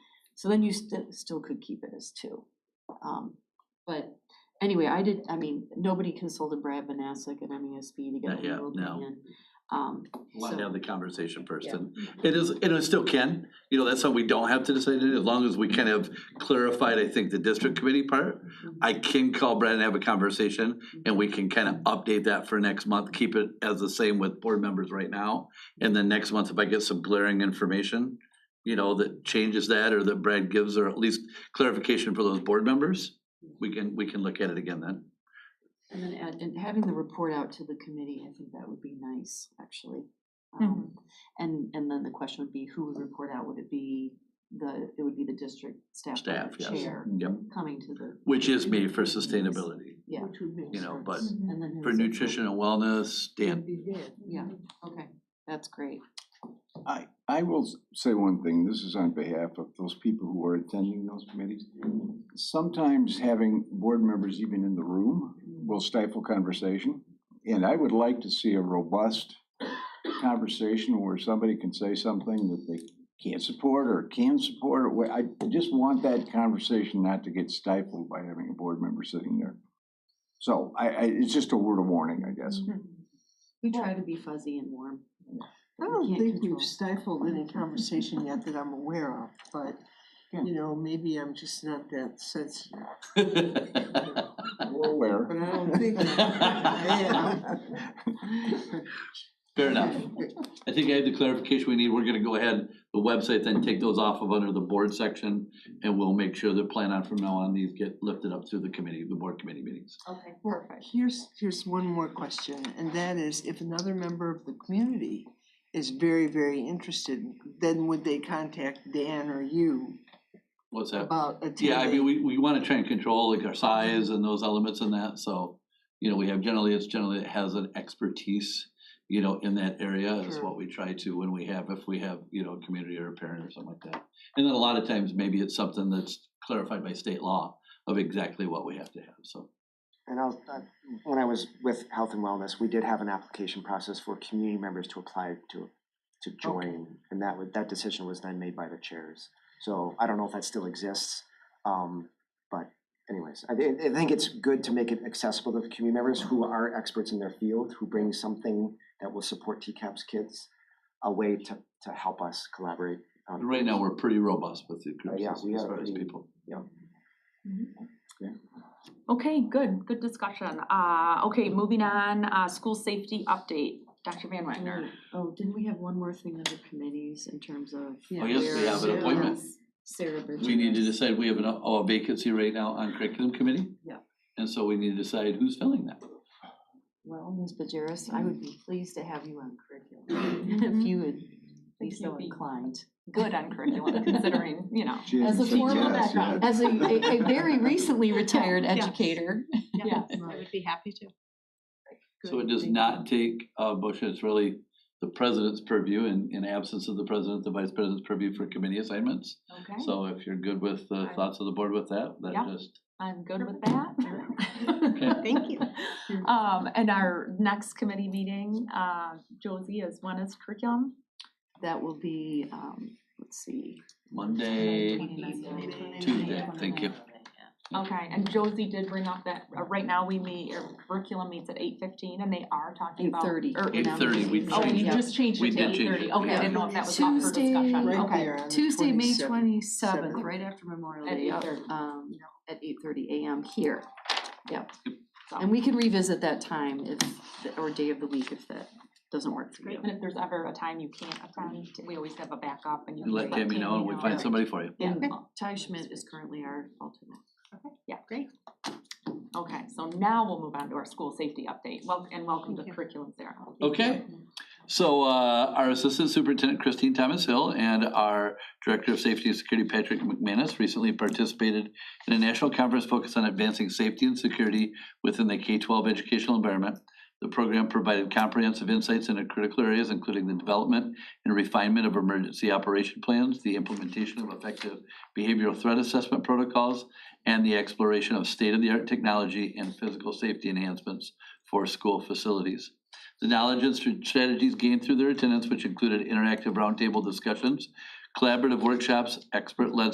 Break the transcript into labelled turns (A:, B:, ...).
A: So then you still, still could keep it as two. Um, but anyway, I did, I mean, nobody consulted Brad Banasek and MESB to get
B: Not yet,
A: a legal
B: no.
A: opinion. Um,
B: Let's
A: so-
B: have the conversation first,
A: Yeah.
B: and it is, and it still can, you know, that's something we don't have to decide, today, as long as we kind of clarified, I think, the district committee part.
A: Mm-hmm.
B: I can call Brad and have a conversation, and we can kind of update that for next month, keep it as the same with board members right now. And then next month, if I get some glaring information, you know, that changes that, or that Brad gives, or at least clarification for those board members, we can, we can look at it again then.
A: And then, add- and having the report out to the committee, I think that would be nice, actually. Um, And, and then the question would be, who would report out? Would it be the, it would be the district staff or
B: Staff, yes.
A: chair
B: Yep,
A: coming to the.
B: which is me for sustainability,
A: Yeah.
B: you know, but
A: And then.
B: for
A: who's-
B: nutrition and wellness, Dan.
A: Yeah, okay, that's great.
C: I, I will s- say one thing, this is on behalf of those people who are attending those committees. Sometimes having board members even in the room will stifle conversation. And I would like to see a robust conversation where somebody can say something that they can't support or can support. or where- I just want that conversation not to get stifled by having a board member sitting there. So I, I, it's just a word of warning, I guess.
A: Mm-hmm. We try to be fuzzy and warm.
D: I
A: can't
D: don't think
A: control.
D: we've stifled any conversation yet that I'm aware of, but,
A: Yeah.
D: you know, maybe I'm just not that sensitive.
C: We're aware.
D: But I don't think, I am.
B: Fair enough. I think I have the clarification we need. We're gonna go ahead, the website, then take those off of under the board section, and we'll make sure that plan on from now on, these get lifted up through the committee, the board committee meetings.
A: Okay, perfect.
D: Here's, here's one more question, and that is if another member of the community is very, very interested, then would they contact Dan or you
B: What's that?
D: about attending?
B: Yeah, I mean, we, we wanna try and control like our size and those elements and that, so, you know, we have generally, it's generally, it has an expertise, you know, in that area is
D: Sure.
B: what we try to, when we have, if we have, you know, a community or a parent or something like that. And then a lot of times, maybe it's something that's clarified by state law of exactly what we have to have, so.
E: And I'll, uh, when I was with Health and Wellness, we did have an application process for community members to apply to, to join. And that would, that decision was then made by the chairs. So I don't know if that still exists. Um, but anyways, I, thi- I think it's good to make it accessible to the community members who are experts in their field, who bring something that will support TCAPS kids, a way to, to help us collaborate. on-
B: Right now, we're pretty robust with the groups
E: Oh, yeah,
B: as
E: we
B: as
E: are
B: far as
E: pretty-
B: people.
F: Okay, good, good discussion. Uh, okay, moving on, uh, school safety update, Dr. Van Wagner.
A: Oh, didn't we have one more thing under committees in terms of?
B: Oh, yes, we
A: where
B: have an
A: Sarah-
B: appointment.
A: Sarah Bridges.
B: We need to decide, we have an, a vacancy right now on curriculum committee.
A: Yeah.
B: And so we need to decide who's filling that.
A: Well, Ms. Bajeris, I would be pleased to have you on curriculum, if you would be so
F: You'd be-
A: inclined.
F: Good on curriculum, considering, you know,
C: She
A: As a
C: hasn't said
A: formal
C: yes yet.
F: background.
A: As a, a a very recently retired
F: Yeah.
A: educator.
F: yeah.
A: I
F: would be happy to.
B: So it does not take, uh, motion, it's really the president's purview and in absence of the president, the vice president's purview for committee assignments.
F: Okay,
B: So if you're good with the
F: I'm-
B: thoughts of the board with that,
F: Yeah.
B: that just,
F: I'm good with that.
D: Thank you.
F: Um, and our next committee meeting, uh, Josie, is when is curriculum?
A: That will be, um, let's see.
B: Monday,
A: 29th.
B: Tuesday, thank you.
F: Okay, and Josie did bring up that, uh, right now we meet, or curriculum meets at eight fifteen, and they are talking about.
A: 8:30.
F: or-
B: 8:30, we
F: Oh, you
A: Yeah.
F: just changed
B: We
F: it to
B: did
F: eight
B: change it,
F: thirty, okay, I
B: yeah.
F: didn't know if that was up for
A: Tuesday,
F: discussion,
D: Right
F: okay.
D: there on the
A: Tuesday, May
D: 27th.
A: twenty-seventh,
D: Seventh.
A: right after Memorial
F: At
A: Day,
F: 8:30.
A: um, at eight thirty AM here. Yep. And we can revisit that time if, or day of the week if that doesn't work for you.
F: And if there's ever a time you can't attend, we always have a backup and
B: You
F: you. can
B: let Tammy know and we find
F: Yeah.
B: somebody for you.
F: Yeah,
A: And Ty Schmidt is currently our alternate.
F: yeah, great. Okay, so now we'll move on to our school safety update, well, and welcome to curriculum, Sarah.
B: Okay, so uh, our Assistant Superintendent Christine Thomas Hill and our Director of Safety and Security Patrick McManus recently participated in a national conference focused on advancing safety and security within the K-12 educational environment. The program provided comprehensive insights into critical areas, including the development and refinement of emergency operation plans, the implementation of effective behavioral threat assessment protocols, and the exploration of state-of-the-art technology and physical safety enhancements for school facilities. The knowledge and str- strategies gained through their attendance, which included interactive roundtable discussions, collaborative workshops, expert-led